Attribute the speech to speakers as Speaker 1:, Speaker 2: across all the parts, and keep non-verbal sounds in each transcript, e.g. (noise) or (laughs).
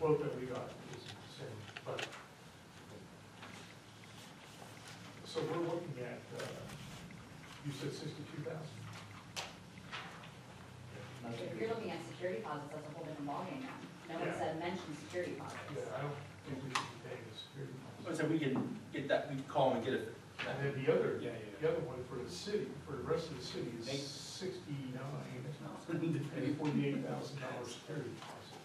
Speaker 1: quote that we got is the same, but. So we're looking at, uh, you said sixty-two thousand?
Speaker 2: If you're looking at security deposits, that's a whole different ballgame now. No one
Speaker 1: Yeah.
Speaker 2: said mention security
Speaker 1: Yeah,
Speaker 2: deposits.
Speaker 1: I don't think we should be paying the security deposit.
Speaker 3: So we can get that, we can call and get it.
Speaker 1: And then the other,
Speaker 3: Yeah, yeah,
Speaker 1: the other one for the city, for the rest of the city is
Speaker 3: Eight.
Speaker 1: sixty-nine, (laughs) and forty-eight thousand dollars security deposit.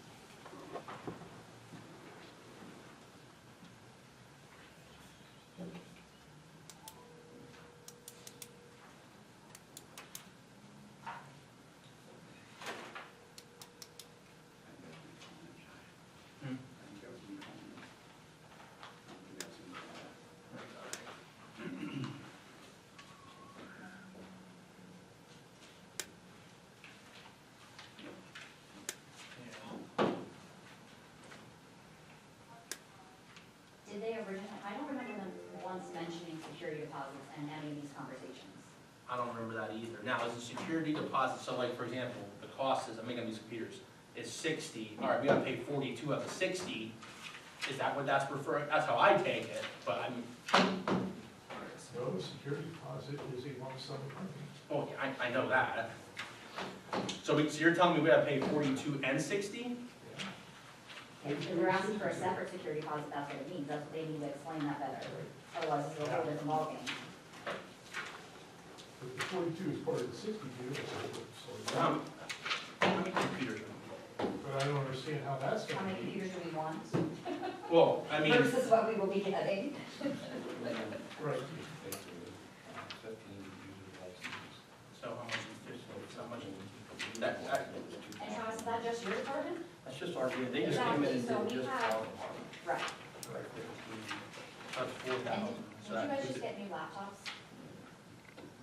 Speaker 3: Hmm.
Speaker 2: Did they originally, I don't remember them once mentioning security deposits and having these conversations.
Speaker 3: I don't remember that either. Now, is the security deposit, so like, for example, the cost is, I'm making these computers, is sixty, all right, we gotta pay forty-two of the sixty. Is that what that's referring, that's how I take it, but I'm,
Speaker 1: No, the security deposit is a lump sum of money.
Speaker 3: oh, yeah, I, I know that. So we, so you're telling me we gotta pay forty-two and sixty?
Speaker 2: If we're asking for a separate security deposit, that's what it means, that's what they need to explain that better. Otherwise, it's a whole different ballgame.
Speaker 1: But the forty-two is part of the sixty-two, so- so,
Speaker 3: Um, How many computers?
Speaker 1: but I don't understand how that's
Speaker 2: How
Speaker 1: gonna
Speaker 2: many
Speaker 1: be.
Speaker 2: computers do we want
Speaker 3: Well, I mean.
Speaker 2: versus what we will be getting?
Speaker 1: Right.
Speaker 3: So how much is this, how much? That, that,
Speaker 2: And how is that just your department?
Speaker 4: That's just our, they
Speaker 2: just came in and did Exactly, so we just have- our Right.
Speaker 3: that's four
Speaker 2: And
Speaker 3: thousand.
Speaker 2: did- did you guys just get new laptops?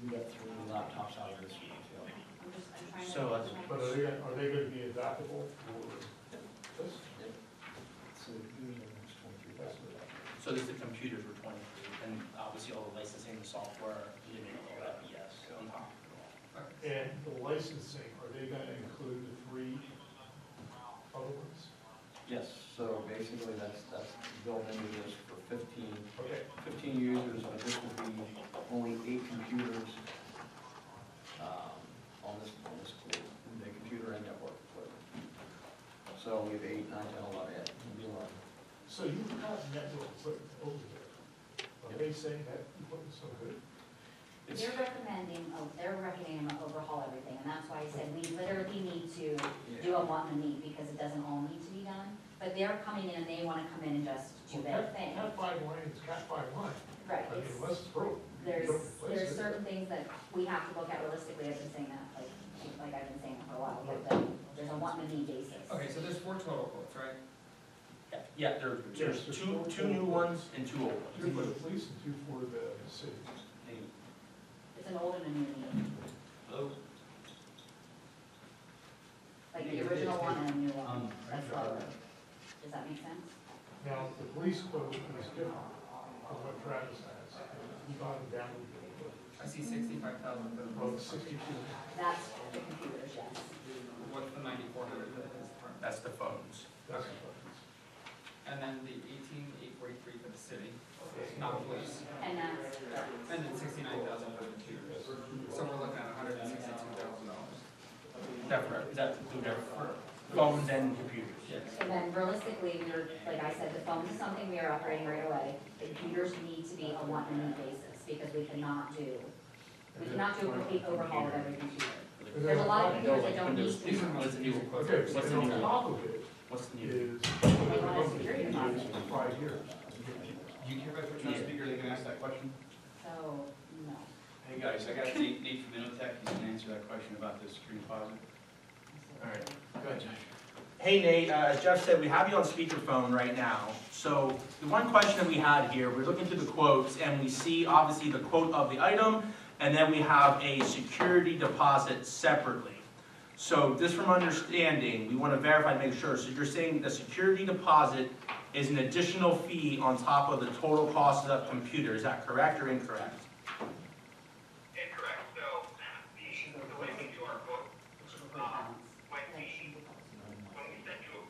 Speaker 4: We got three laptops out of this year,
Speaker 2: I'm just, I'm trying to.
Speaker 3: So, uh,
Speaker 1: But are they, gonna- are they gonna be adaptable for this?
Speaker 4: so here's the next twenty-three thousand.
Speaker 3: So this, the computers were twenty-three, and obviously all the licensing, the software, you didn't know that, yes, on top.
Speaker 1: And the licensing, are they gonna include the three other ones?
Speaker 4: Yes, so basically that's, that's built into this for fifteen,
Speaker 1: Okay,
Speaker 4: fifteen users, and this will be only eight computers, um, on this, on this group, the computer and network. group. So we have eight, nine, ten, eleven, yeah, it'll be eleven.
Speaker 1: so you have network equipment over there. Are they saying that equipment's so good?
Speaker 4: It's-
Speaker 2: They're recommending, oh, they're recommending to overhaul everything, and that's why I said we literally need to do a want and a need, because it doesn't all need to be done. But they're coming in and they wanna come in and just do their
Speaker 1: Cat-
Speaker 2: thing.
Speaker 1: Cat five line is cat five line.
Speaker 2: Right,
Speaker 1: I mean,
Speaker 2: it's-
Speaker 1: unless it's broke. you
Speaker 2: there's,
Speaker 1: don't replace
Speaker 2: there's
Speaker 1: it.
Speaker 2: certain things that we have to look at realistically, I've been saying that, like, like I've been saying for a while, but the- there's a want and a need basis.
Speaker 5: Okay, so there's four total quotes, right?
Speaker 3: Yeah, Yeah, there, there's two, two new ones and two old
Speaker 1: Two for
Speaker 3: ones.
Speaker 1: the police and two for the city.
Speaker 2: It's an old and a new need,
Speaker 3: Hello?
Speaker 2: like the original one and a new one, that's all. Does that make sense?
Speaker 1: Now, the police quote is different from what Travis has. He got it down
Speaker 5: I see sixty-five thousand for the
Speaker 1: from
Speaker 5: roads.
Speaker 1: sixty-two.
Speaker 2: That's the computers, yes.
Speaker 5: What's the ninety-four hundred that is current?
Speaker 3: That's the phones.
Speaker 1: That's
Speaker 5: Okay. And then the eighteen, eight forty-three for the city, not police,
Speaker 2: And that's,
Speaker 5: and then sixty-nine thousand for the computers. So we're looking at hundred and sixty-two thousand dollars.
Speaker 3: Separate, is that include everything? Phones and computers?
Speaker 5: Yes.
Speaker 2: And then realistically, we're, like I said, the phone is something we are operating right away. The computers need to be a want and need basis, because we cannot do, we cannot do a complete overhaul of every computer. There's a lot of computers that don't need to be,
Speaker 5: These are
Speaker 3: What's
Speaker 5: most
Speaker 3: the new,
Speaker 5: recent quotes.
Speaker 1: Okay, so
Speaker 3: What's the
Speaker 1: then
Speaker 3: new-
Speaker 1: on top of it
Speaker 3: what's the new?
Speaker 1: is.
Speaker 2: want a security deposit.
Speaker 1: Five years.
Speaker 6: Do you care if I put you on speaker, they can ask that question?
Speaker 2: so, no.
Speaker 6: Hey, guys, I got Nate, Nate from Innotek, he's gonna answer that question about the security deposit.
Speaker 3: All right.
Speaker 6: Go ahead, Josh.
Speaker 3: Hey Nate, uh, as Jeff said, we have you on speakerphone right now. So the one question that we had here, we're looking through the quotes and we see obviously the quote of the item and then we have a security deposit separately. So just from understanding, we want to verify and make sure. So you're saying the security deposit is an additional fee on top of the total cost of the computer, is that correct or incorrect?